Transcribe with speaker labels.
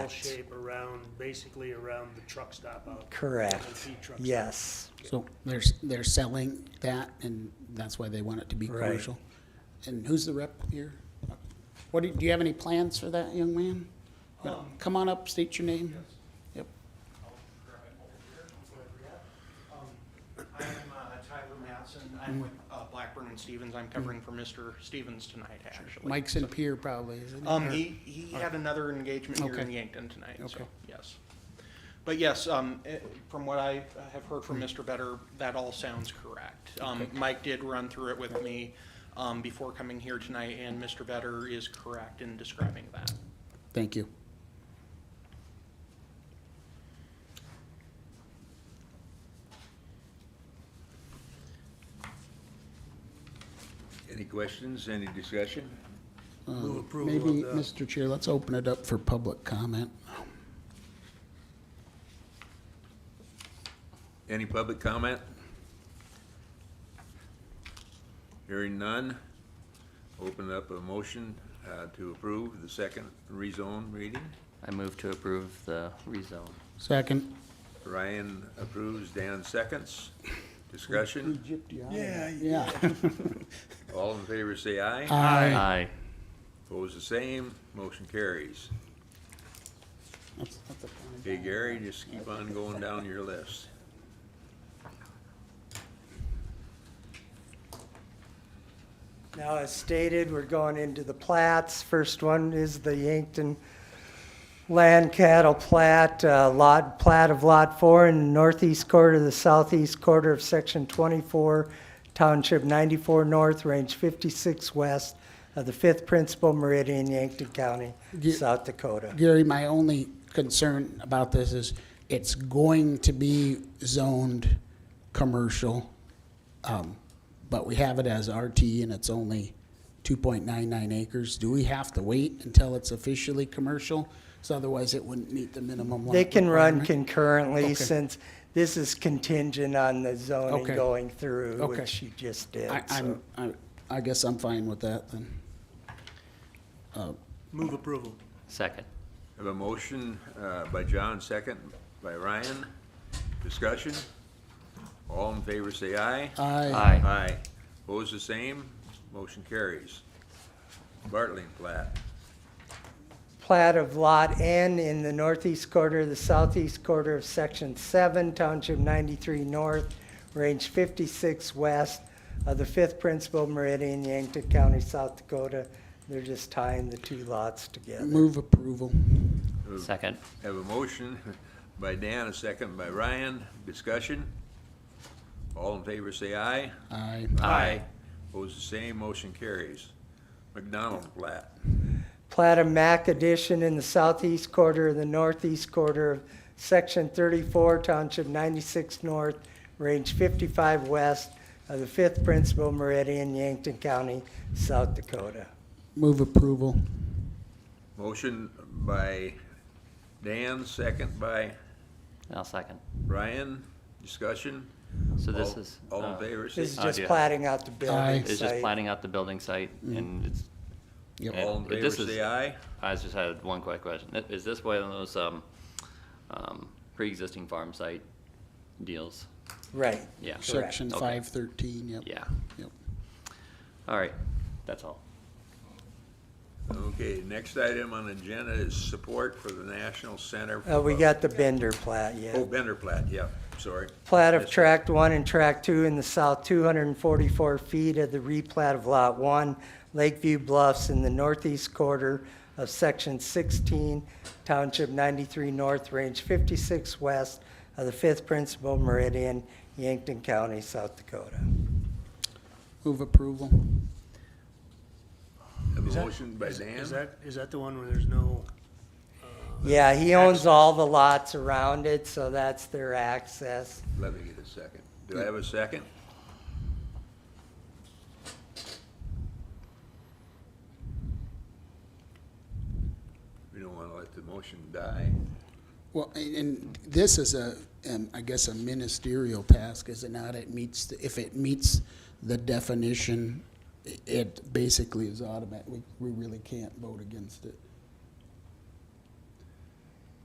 Speaker 1: shape around, basically around the truck stop out.
Speaker 2: Correct.
Speaker 1: MLP truck stop.
Speaker 2: Yes.
Speaker 3: So they're, s- they're selling that, and that's why they want it to be
Speaker 2: Right.
Speaker 3: commercial. And who's the rep here? What, do do you have any plans for that, young man?
Speaker 1: Um,
Speaker 3: Come on up, state your name. Yep.
Speaker 4: Um, I'm uh, Tyler Matson. I'm with uh, Blackburn and Stevens. I'm covering for Mr. Stevens tonight, actually.
Speaker 3: Mike's in Pier probably, isn't he?
Speaker 4: Um, he, he had another engagement here in
Speaker 3: Okay.
Speaker 4: Yankton tonight, so,
Speaker 3: Okay.
Speaker 4: yes. But yes, um, eh, from what I have heard from Mr. Better, that all sounds correct. Um, Mike did run through it with me, um, before coming here tonight, and Mr. Better is correct in describing that.
Speaker 3: Thank you.
Speaker 5: Any questions, any discussion?
Speaker 1: Move approval of
Speaker 3: Maybe,
Speaker 1: the-
Speaker 3: Mr. Chair, let's open it up for public comment.
Speaker 5: Any public comment? Hearing none, open up a motion uh, to approve the second rezone reading.
Speaker 6: I move to approve the rezone.
Speaker 3: Second.
Speaker 5: Ryan approves, Dan seconds. Discussion,
Speaker 1: Yeah,
Speaker 3: Yeah.
Speaker 5: all in favor say aye.
Speaker 3: Aye.
Speaker 6: Aye.
Speaker 5: Opposed, the same, motion carries.
Speaker 3: That's- that's a fine
Speaker 5: Hey Gary, just keep on going down your list.
Speaker 7: Now, as stated, we're going into the plats. First one is the Yankton Land Cattle Plat, uh, Lot, Plat of Lot 4 in the northeast quarter, the southeast quarter of Section 24, Township 94 North, Range 56 West of the 5th Principal Meridian, Yankton County,
Speaker 3: Ye-
Speaker 7: South Dakota.
Speaker 3: Gary, my only concern about this is it's going to be zoned commercial, um, but we have it as RT and it's only 2.99 acres. Do we have to wait until it's officially commercial? So otherwise it wouldn't meet the minimum. lot
Speaker 7: They can run
Speaker 3: requirement?
Speaker 7: concurrently
Speaker 3: Okay.
Speaker 7: since this is contingent on the zoning
Speaker 3: Okay.
Speaker 7: going through,
Speaker 3: Okay.
Speaker 7: which you just did.
Speaker 3: I,
Speaker 7: so.
Speaker 3: I'm, I, I guess I'm fine with that then.
Speaker 1: Move approval.
Speaker 6: Second.
Speaker 5: Have a motion uh, by John, second by Ryan. Discussion? All in favor say aye.
Speaker 3: I,
Speaker 6: Aye.
Speaker 5: Aye. Opposed, the same. Motion carries. Bartling plat.
Speaker 7: plat of Lot N in the northeast quarter, the southeast quarter of Section 7, Township 93 North, Range 56 West of the 5th Principal Meridian, Yankton County, South Dakota. They're just tying the two lots together.
Speaker 3: move approval.
Speaker 6: Second.
Speaker 5: Have a motion by Dan, a second by Ryan. Discussion? All in favor say aye.
Speaker 3: I,
Speaker 6: Aye.
Speaker 5: Opposed, the same. Motion carries. McDonald plat.
Speaker 7: Plat of Mac addition in the southeast quarter of the northeast quarter of Section 34, Township 96 North, Range 55 West of the 5th Principal Meridian, Yankton County, South Dakota.
Speaker 3: move approval.
Speaker 5: Motion by Dan, second by
Speaker 6: I'll second.
Speaker 5: Ryan. Discussion?
Speaker 6: So this
Speaker 5: All-
Speaker 6: is.
Speaker 5: All
Speaker 6: uh,
Speaker 5: in favor say
Speaker 7: This is
Speaker 6: Oh,
Speaker 7: just
Speaker 6: yeah.
Speaker 7: plating out the building
Speaker 3: Aye.
Speaker 6: It's just
Speaker 7: site.
Speaker 6: planning out the building site and it's,
Speaker 3: Yep.
Speaker 5: All in favor,
Speaker 6: This is-
Speaker 5: say aye.
Speaker 6: I just had one quick question. Is this one of those, um, um, pre-existing farm site deals?
Speaker 7: Right.
Speaker 6: Yeah.
Speaker 3: Section
Speaker 6: Okay.
Speaker 3: 513, yep.
Speaker 6: Yeah.
Speaker 3: Yep.
Speaker 6: All right. That's all.
Speaker 5: Okay, next item on the agenda is support for the National Center.
Speaker 7: Uh, we
Speaker 5: for-
Speaker 7: got the Bender plat, yeah.
Speaker 5: Oh, Bender plat, yeah, sorry.
Speaker 7: Plat of
Speaker 5: Yes, sir.
Speaker 7: tract one and tract two in the south, two hundred and forty-four feet of the replat of lot one, Lakeview Bluffs in the northeast quarter of section sixteen, township ninety-three north, range fifty-six west of the fifth principal meridian, Yankton County, South Dakota.
Speaker 3: Move approval.
Speaker 5: Have
Speaker 1: Is
Speaker 5: a
Speaker 1: that-
Speaker 5: motion by
Speaker 1: is- Is
Speaker 5: Dan,
Speaker 1: that, is that the one where there's no? uh,
Speaker 7: Yeah, he owns all the lots around it, so that's their access.
Speaker 5: let me get a second. Do I have a second? We don't wanna let the motion die.
Speaker 3: Well, and, and this is a, um, I guess, a ministerial task, is it not? It meets, the- if it meets the definition, i- it basically is automatic. We, we really can't vote against it.